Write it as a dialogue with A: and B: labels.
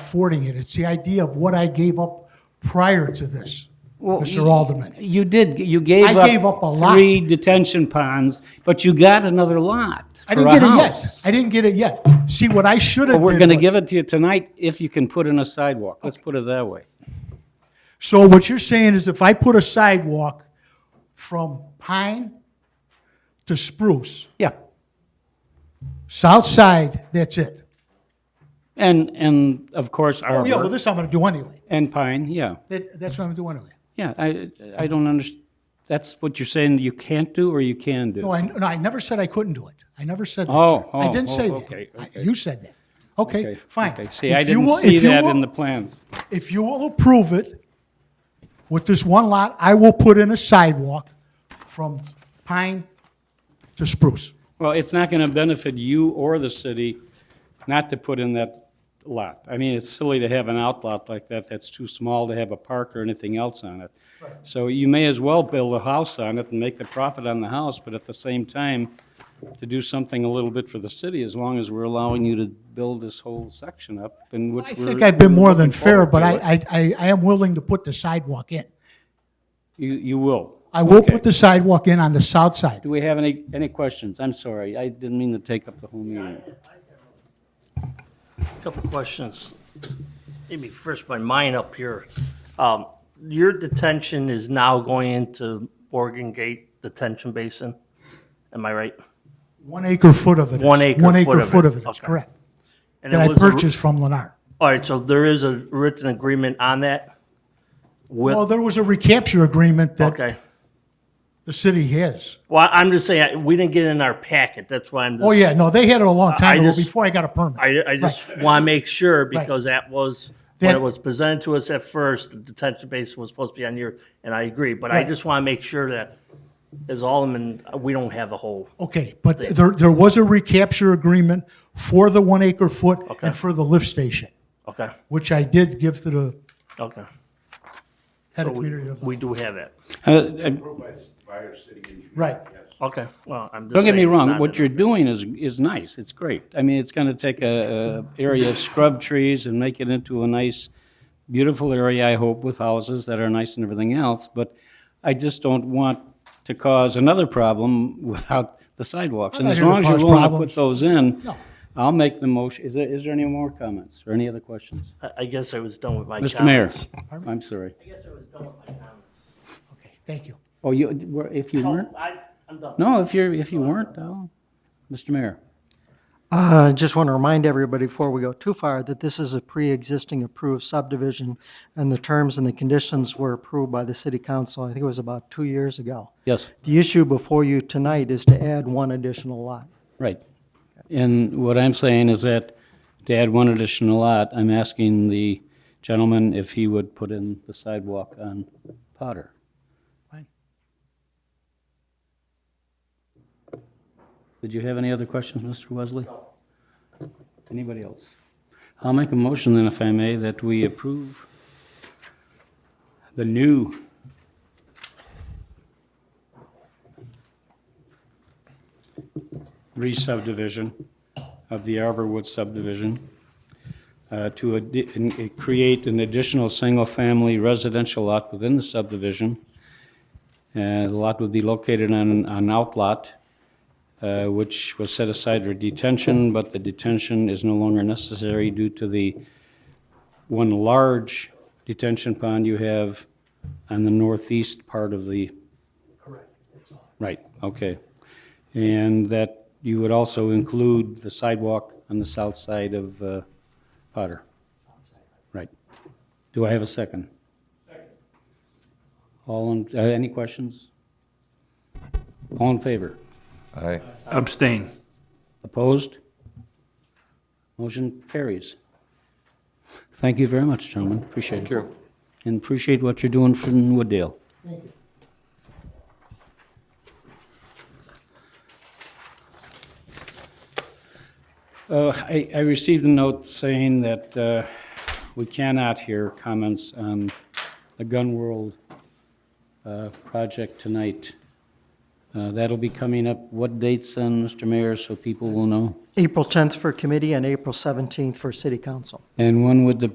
A: affording it. It's the idea of what I gave up prior to this,
B: Well,
A: Mr.
B: you-
A: Alderman.
B: You did, you gave
A: I
B: up.
A: gave up a lot.
B: Three detention ponds, but you got another lot
A: I
B: for
A: didn't
B: a
A: get it yet.
B: house.
A: I didn't get it yet. See, what I should have
B: But
A: did.
B: we're gonna
A: was-
B: give it to you tonight if you can put in a sidewalk, let's put it that way.
A: So what you're saying is if I put a sidewalk from Pine to Spruce,
B: Yeah,
A: south side, that's it.
B: and, and of course
A: Yeah, well,
B: Arbor
A: this I'm gonna do anyway.
B: and Pine, yeah,
A: That, that's what I'm doing anyway.
B: yeah, I, I don't underst, that's what you're saying you can't do or you can do?
A: No, I, no, I never said I couldn't do it. I never said that.
B: Oh,
A: sir. I
B: oh,
A: didn't
B: oh,
A: say that.
B: okay,
A: I-
B: okay.
A: You said that. Okay,
B: Okay,
A: fine.
B: See, I
A: If you
B: didn't
A: will-
B: see
A: if you
B: that
A: will-
B: in the plans.
A: If you will approve it with this one lot, I will put in a sidewalk from Pine to Spruce.
B: Well, it's not going to benefit you or the city not to put in that lot. I mean, it's silly to have an outlot like that that's too small to have a park or anything else on it. So you may as well build a house on it and make the profit on the house, but at the same time, to do something a little bit for the city, as long as we're allowing you to build this whole section up, in which
A: I
B: we're...
A: think I've been
B: we're
A: more than
B: looking
A: fair,
B: forward
A: but
B: to
A: I,
B: it.
A: I, I I am willing to put the sidewalk in.
B: You, you will.
A: I will
B: Okay.
A: put the sidewalk in on the south side.
B: Do we have any, any questions? I'm sorry, I didn't mean to take up the whole meeting.
C: Couple questions. Maybe first my mind up here. Um, Your detention is now going into Oregon Gate Detention Basin, am I right?
A: One acre foot of it is.
C: One acre
A: One
C: foot
A: acre
C: of it.
A: foot of it is,
C: Okay.
A: correct.
C: And
A: That
C: it
A: I
C: was a-
A: purchased from Lennar.
C: All right, so there is a written agreement on that?
A: Well,
C: With,
A: there was a recapture agreement that
C: okay.
A: the city has.
C: Well, I'm just saying, I- we didn't get it in our packet, that's why I'm
A: Oh,
C: just,
A: yeah, no, they had it a long time
C: I
A: ago,
C: just-
A: before I got a permit.
C: I, I just want to make sure because that was, when
A: That-
C: it was presented to us at first, the detention basin was supposed to be on your, and I agree, but I
A: Right.
C: just want to make sure that as Alderman, we don't have a whole
A: Okay, but there, there was a recapture agreement for the one acre foot and for the lift station,
C: Okay,
A: which I did give to the
C: okay.
A: head
C: So
A: of
C: we,
A: community. of-
C: we do have that.
B: Uh, I-
A: Right.
C: Okay, well, I'm just
B: Don't get me
C: saying it's
B: wrong,
C: not
B: what
C: in-
B: you're doing is, is nice, it's great. I mean, it's gonna take a, a area of scrub trees and make it into a nice, beautiful area, I hope, with houses that are nice and everything else, but I just don't want to cause another problem without the sidewalks.
A: I'm
B: And
A: not
B: as
A: here to
B: long as you're
A: cause
B: willing to
A: problems.
B: put those in,
A: No.
B: I'll make the motion. Is there, is there any more comments or any other questions?
C: I- I guess I was done with my comments.
B: Mr. Mayor, I'm sorry.
C: I guess I was done with my comments.
A: Okay, thank you.
B: Oh, you, were- if you weren't?
C: No, I, I'm done.
B: No, if you're, if you weren't, oh, Mr. Mayor.
D: Uh, Just want to remind everybody before we go too far that this is a pre-existing approved subdivision, and the terms and the conditions were approved by the city council, I think it was about two years ago.
B: Yes.
D: The issue before you tonight is to add one additional lot.
B: Right. And what I'm saying is that to add one additional lot, I'm asking the gentleman if he would put in the sidewalk on Potter.
A: Fine.
B: Did you have any other questions, Mr. Wesley? Anybody else? I'll make a motion then, if I may, that we approve the new re-subdivision of the Arborwood subdivision uh, to addi- in- eh, create an additional single-family residential lot within the subdivision. Uh, The lot would be located on an outlot, uh, which was set aside for detention, but the detention is no longer necessary due to the one large detention pond you have on the northeast part of the... Correct. Right, okay. And that you would also include the sidewalk on the south side of uh, Potter. Right. Do I have a second? Second. All, in- uh, any questions? All in favor?
E: Aye.
F: Abstain.
B: Opposed? Motion carries. Thank you very much, gentlemen. Appreciate it. Thank you. And appreciate what you're doing from Wooddale. Uh, I, I received a note saying that uh, we cannot hear comments on the Gun World uh, project tonight. Uh, That'll be coming up, what dates then, Mr. Mayor, so people will know?
D: April 10th for committee and April 17th for city council.
B: And when would the